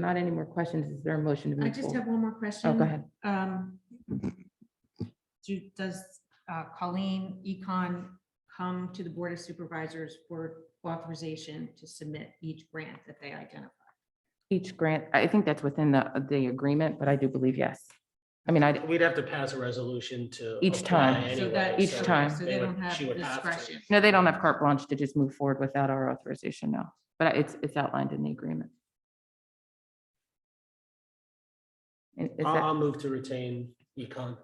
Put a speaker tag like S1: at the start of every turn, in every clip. S1: Not any more questions. Is there a motion to
S2: I
S1: move
S2: just
S1: forward?
S2: have one more question.
S1: Oh, go ahead.
S2: Um, do, does uh, Colleen Econ come to the Board of Supervisors for authorization to submit each grant that they identify?
S1: Each grant, I think that's within the, the agreement, but I do believe yes. I mean, I,
S3: We'd have to pass a resolution to.
S1: Each
S3: apply
S1: time.
S2: So
S3: anyway,
S2: that-
S1: Each
S3: so
S1: time.
S2: So
S3: they
S2: they
S3: would-
S2: don't have
S3: she would have to.
S2: discretion.
S1: no, they don't have carte blanche to just move forward without our authorization, no. But it's, it's outlined in the agreement. Is is
S3: I'll,
S1: that-
S2: Um,
S3: I'll move to retain econ.
S1: is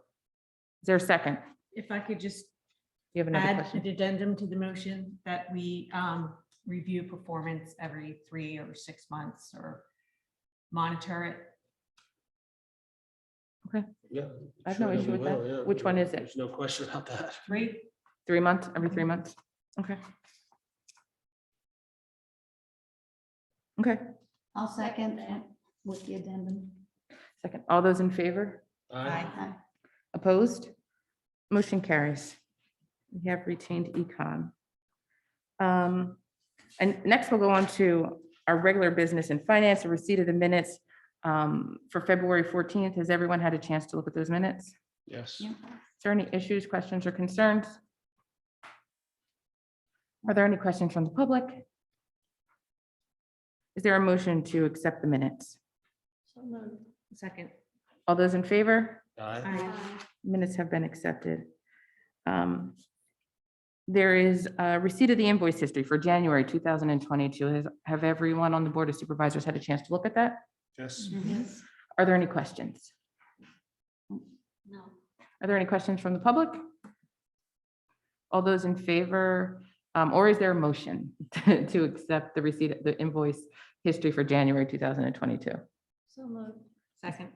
S1: there a second?
S2: If I could just
S1: You have another
S2: add an
S1: question?
S2: addendum to the motion that we um, review performance every three or six months or monitor it.
S3: Yeah.
S1: I have no
S3: sure
S1: issue
S3: we
S1: with that.
S3: will, yeah.
S1: Which one is it?
S3: There's no question about that.
S2: Three,
S1: Three months, every three months? Okay. Okay,
S4: I'll second that with the addendum.
S1: second. All those in favor?
S3: Aye.
S4: Aye.
S1: Opposed? Motion carries. We have retained econ. Um, And next we'll go on to our regular business and finance, a receipt of the minutes um, for February 14th. Has everyone had a chance to look at those minutes? Is
S3: Yes.
S4: Yeah.
S1: there any issues, questions, or concerns? Are there any questions from the public? Is there a motion to accept the minutes?
S2: second.
S1: All those in favor?
S3: Aye.
S2: Aye.
S1: Minutes have been accepted. Um, There is a receipt of the invoice history for January 2022. Has, have everyone on the Board of Supervisors had a chance to look at that?
S3: Yes.
S2: Mm-hmm.
S4: Yes.
S1: Are there any questions?
S4: No.
S1: Are there any questions from the public? All those in favor, um, or is there a motion to to accept the receipt, of the invoice history for January 2022?
S4: So moved.
S2: Second.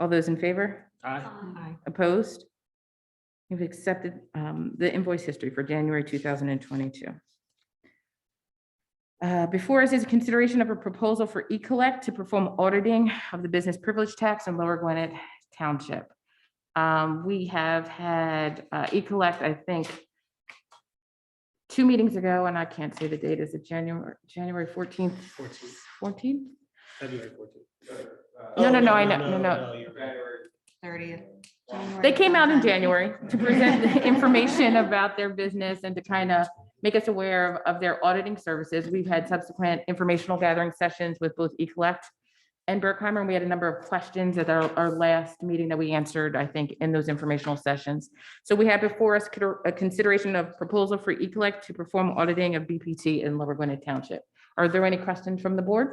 S1: All those in favor?
S3: Aye.
S2: Aye.
S1: Opposed? You've accepted um, the invoice history for January 2022. Uh, Before us is a consideration of a proposal for Ecollect to perform auditing of the business privilege tax in Lower Gwinnett Township. Um, We have had uh, Ecollect, I think, two meetings ago, and I can't say the date. Is it January, January 14th?
S3: 14th.
S1: 14th?
S3: February fourteenth. Oh,
S1: No, no, no, I know, no, no.
S2: Thirtieth.
S1: They came out in January to present the information about their business and to kind of make us aware of, of their auditing services. We've had subsequent informational gathering sessions with both Ecollect and Berkheimer, and we had a number of questions at our, our last meeting that we answered, I think, in those informational sessions. So we have before us con- a consideration of proposal for Ecollect to perform auditing of BPT in Lower Gwinnett Township. Are there any questions from the board?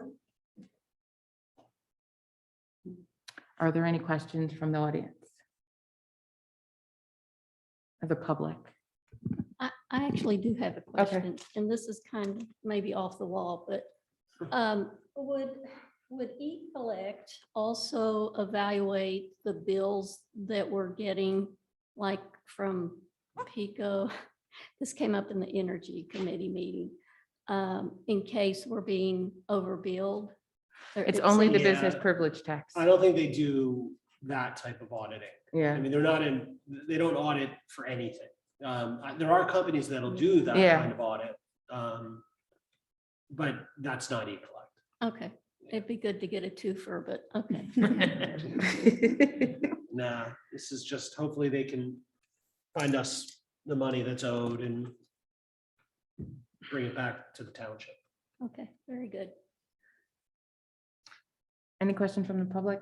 S1: Are there any questions from the audience? of the public.
S4: I, I actually do have a question, and this is kind of maybe off the wall, but um, would, would E-Collect also evaluate the bills that we're getting, like from Pico? This came up in the Energy Committee meeting, um, in case we're being overbilled. or
S1: It's only the
S4: exceeding-
S1: business
S3: Yeah.
S1: privilege tax.
S3: I don't think they do that type of auditing. I
S1: Yeah,
S3: mean, they're not in, they don't audit for anything. Um, I- there are companies that'll do that
S1: Yeah.
S3: kind of audit. Um, but that's not Ecollect.
S4: Okay, it'd be good to get a twofer, but okay.
S3: Nah, this is just hopefully they can find us the money that's owed and bring it back to the township.
S4: Okay, very good.
S1: Any questions from the public?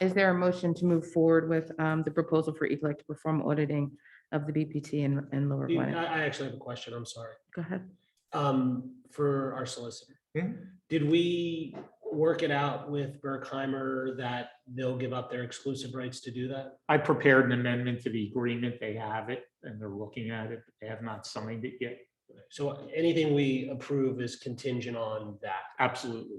S1: Is there a motion to move forward with um, the proposal for Ecolab to perform auditing of the BPT and, and Lower
S3: Do you-
S1: Gwinnett?
S3: I, I actually have a question, I'm sorry,
S1: Go ahead.
S3: um, for our solicitor. Did we work it out with Berkheimer that they'll give up their exclusive rights to do that?
S5: I prepared an amendment to the agreement. They have it and they're looking at it. but They have not signed it yet.
S3: So anything we approve is contingent on that.
S5: Absolutely.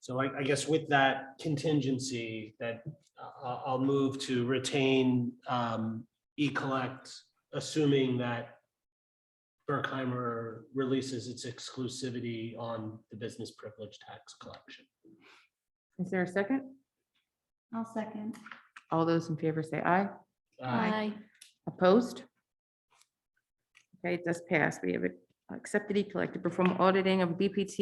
S3: So I, I guess with that contingency, that I- I'll, I'll move to retain um, E-Collect, assuming that Berkheimer releases its exclusivity on the business privilege tax collection.
S1: Is there a second?
S4: I'll second.
S1: All those in favor say aye.
S4: Oh
S3: Uh,
S1: Opposed? Okay, it does pass. We have accepted Ecolab to perform auditing of BPT